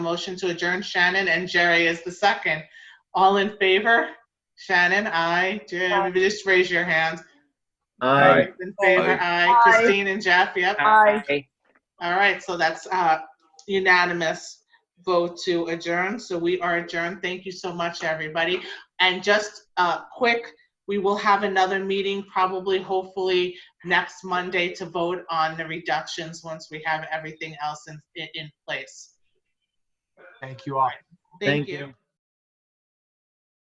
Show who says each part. Speaker 1: Motion to adjourn Shannon and Jerry is the second. All in favor? Shannon, aye. Jerry, just raise your hand.
Speaker 2: Aye.
Speaker 1: In favor, aye. Christine and Jeff, yep.
Speaker 3: Aye.
Speaker 1: All right, so that's uh, unanimous vote to adjourn. So we are adjourned. Thank you so much, everybody. And just uh, quick, we will have another meeting probably, hopefully, next Monday to vote on the reductions once we have everything else in, in- in place.
Speaker 4: Thank you all.
Speaker 1: Thank you.